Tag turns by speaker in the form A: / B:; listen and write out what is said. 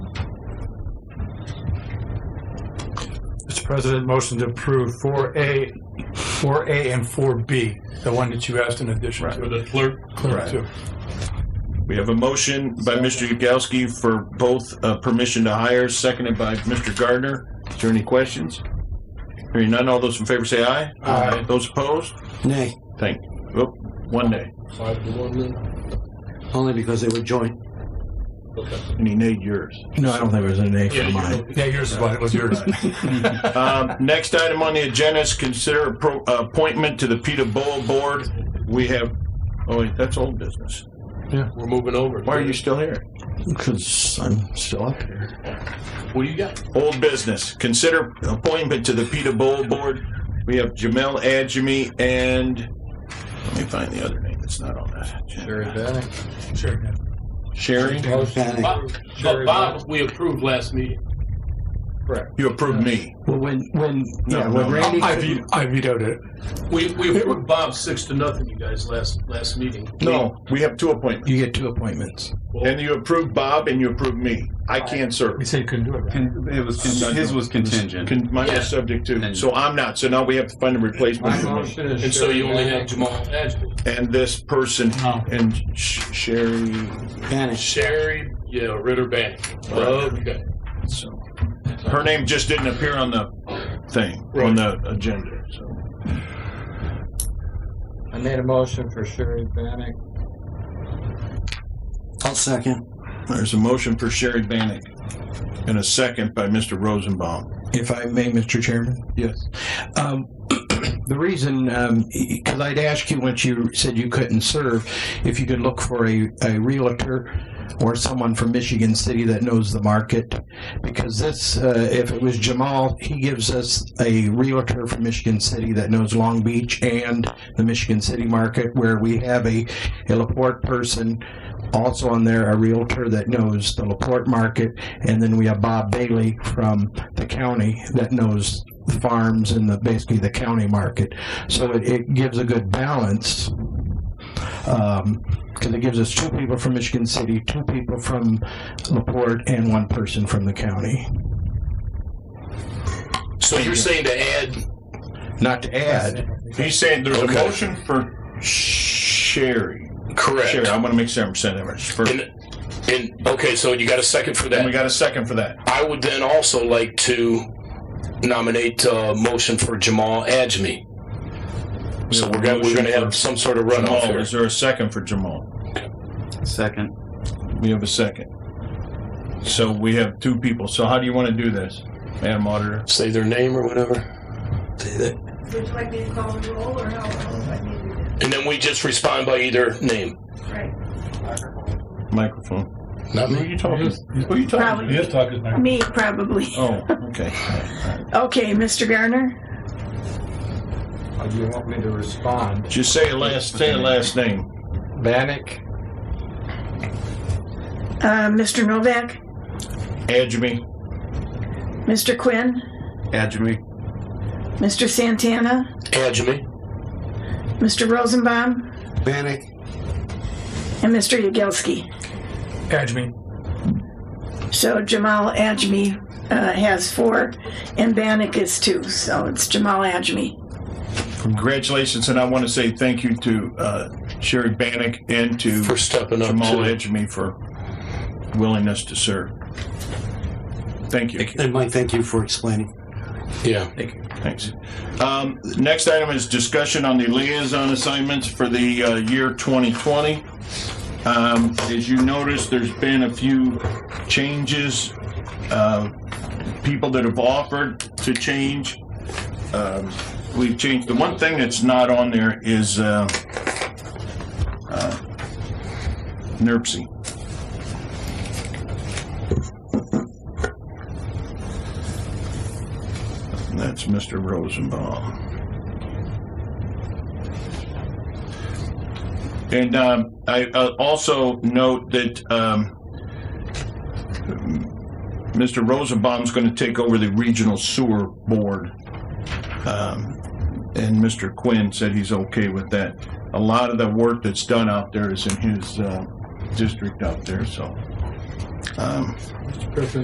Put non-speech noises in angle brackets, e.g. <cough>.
A: Mr. President, motion to approve 4A, 4A and 4B, the one that you asked in addition
B: Right.
A: to.
C: the clerk.
A: Clear
B: Right.
A: too.
B: We have a motion by Mr. Yagowski for both uh, permission to hire, seconded by Mr. Gardner. Is there any questions? Hearing none, all those in favor say aye.
A: Aye.
B: Those opposed?
D: Nay,
B: Thank you. Oop, One nay.
C: Five to one then?
D: only because they were joint.
C: Okay.
B: And he nayed yours.
E: No, I don't think there's an A
C: Yeah,
E: for
C: you
E: mine.
C: know,
A: Yeah, yours is what, it was yours.
B: <laughs> Um, Next item on the agenda is consider appro- uh, appointment to the Peter Bowl Board. We have, oh, wait, that's old business.
C: We're moving over.
B: Why are you still here?
E: Because I'm still up here.
C: What do you got?
B: Old business, consider appointment to the Peter Bowl Board. We have Jamel Adjemi and, let me find the other name that's not on that.
F: Very
B: agenda.
F: bad.
A: Sure.
B: Sherry,
D: Panic.
C: Bob, but Bob, we approved last meeting.
B: you approved me.
E: Well, when, when,
B: No,
E: yeah,
B: no, no.
E: when Randy,
A: I ve- I vetoed it.
C: We, we approved Bob six to nothing, you guys, last, last meeting.
B: No, we have two appointments.
E: you get two appointments.
B: And you approved Bob and you approved me. I can't serve.
A: We said you couldn't do it. right?
F: Con- It was, con- his was contingent.
B: Con- Mine is subject to, so I'm not. So now we have to find a replacement for me.
C: And so you only had Jamal Adjemi.
B: And this person, and Sh- Sherry,
D: Panic.
C: Sherry, yeah, Ritter Bank. Okay.
B: so, her name just didn't appear on the thing, on the agenda, so.
F: I made a motion for Sherry Bannick.
D: I'll second.
B: There's a motion for Sherry Bannick and a second by Mr. Rosenbaum.
E: If I may, Mr. Chairman?
B: Yes.
E: Um, <clears throat> the reason, um, because I'd ask you once you said you couldn't serve, if you could look for a, a realtor or someone from Michigan City that knows the market, because this, uh, if it was Jamal, he gives us a realtor from Michigan City that knows Long Beach and the Michigan City market, where we have a, a Laporte person also on there, a realtor that knows the Laporte market, and then we have Bob Bailey from the county that knows the farms and the, basically the county market. So it, it gives a good balance. Um 'cause because it gives us two people from Michigan City, two people from LaPorte, and one person from the county.
C: So you're saying to add,
E: Not to add,
B: He's saying there's a motion for Sherry. Sherry,
G: Correct.
B: I want to make sure I'm saying that right. First.
G: And, and okay, so you got a second for
B: And we
G: that.
B: got a second for that.
G: I would then also like to nominate a motion for Jamal Adjemi. So we're gonna, we're gonna have some sort of runoff
B: Jamal,
G: here.
B: is there a second for Jamal?
F: Second.
B: We have a second. So we have two people. So how do you want to do this, Madam Auditor?
G: Say their name or whatever.
H: Would you like me to call the roll or how? how would I need to
G: And then we just respond by either name.
H: do it? Right.
B: Microphone.
G: Not
B: Who are
G: me.
B: you talking to? Who are you talking to?
H: Probably.
A: talking now.
H: Me, probably.
B: Oh, okay.
H: Okay, Mr. Garner?
F: Oh, you want me to respond?
B: Just say a last, say a last name.
F: Bannick?
H: Uh, Mr. Novak?
B: Adjemi.
H: Mr. Quinn?
F: Adjemi.
H: Mr. Santana?
G: Adjemi.
H: Mr. Rosenbaum?
D: Panic.
H: And Mr. Yagelski.
A: Adjemi.
H: So Jamal Ajmi uh, has four and Bannick is two, so it's Jamal Ajmi.
B: Congratulations, and I want to say thank you to uh, Sherry Bannick and to
G: For stepping up
B: Jamal
G: to
B: Edgemy for willingness to serve. Thank you.
D: And Mike, thank you for explaining.
G: Yeah.
B: Thanks. Um, Next item is discussion on the liaison assignments for the uh, year 2020. Um, As you notice, there's been a few changes, uh, people that have offered to change. Um, We've changed, the one thing that's not on there is uh, uh, NERC. That's Mr. Rosenbaum. And um, I uh, also note that um, Mr. Rosenbaum's going to take over the Regional Sewer Board. Um, And Mr. Quinn said he's okay with that. A lot of the work that's done out there is in his uh, district out there, so. um,